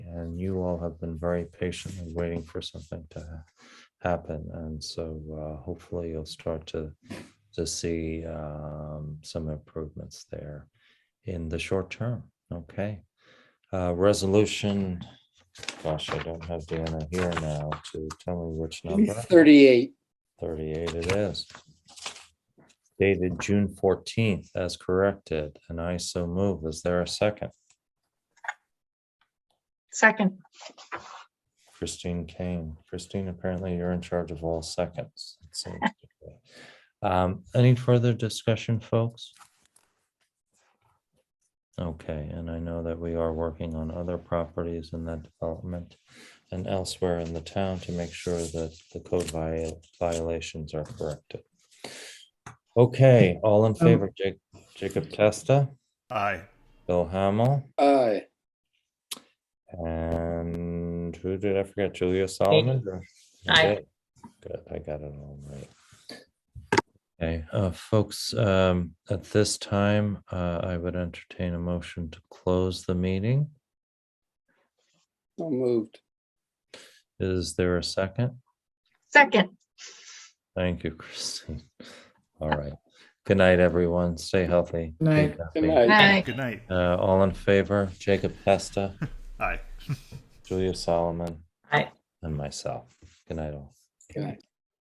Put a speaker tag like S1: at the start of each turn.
S1: and you all have been very patiently waiting for something to ha- happen. And so uh, hopefully you'll start to, to see um, some improvements there in the short term. Okay. Uh, Resolution, gosh, I don't have Deanna here now to tell me which number.
S2: Thirty-eight.
S1: 38 it is. Dated June 14th as corrected, and I so move. Is there a second?
S3: Second,
S1: Christine Kane. Christine, apparently you're in charge of all seconds. it seems to be. Um, Any further discussion, folks? Okay, and I know that we are working on other properties in that development and elsewhere in the town to make sure that the code vi- violations are corrected. Okay, all in favor, Ja- Jacob Testa,
S4: Aye.
S1: Bill Hamel,
S2: Aye.
S1: and who did I forget? Julia Solomon? or-
S3: Aye.
S1: Okay, Good, I got it all right. Okay, uh, folks, um, at this time, uh, I would entertain a motion to close the meeting.
S2: So moved.
S1: Is there a second?
S3: second.
S1: Thank you, Christine. All right. Good night, everyone. Stay healthy. be
S5: Night.
S2: Good
S1: happy.
S2: night.
S3: Aye.
S4: Good night.
S1: Uh, all in favor, Jacob Pesta,
S4: Aye.
S1: Julia Solomon.
S3: Aye.
S1: And myself. Good night all.
S2: Good night.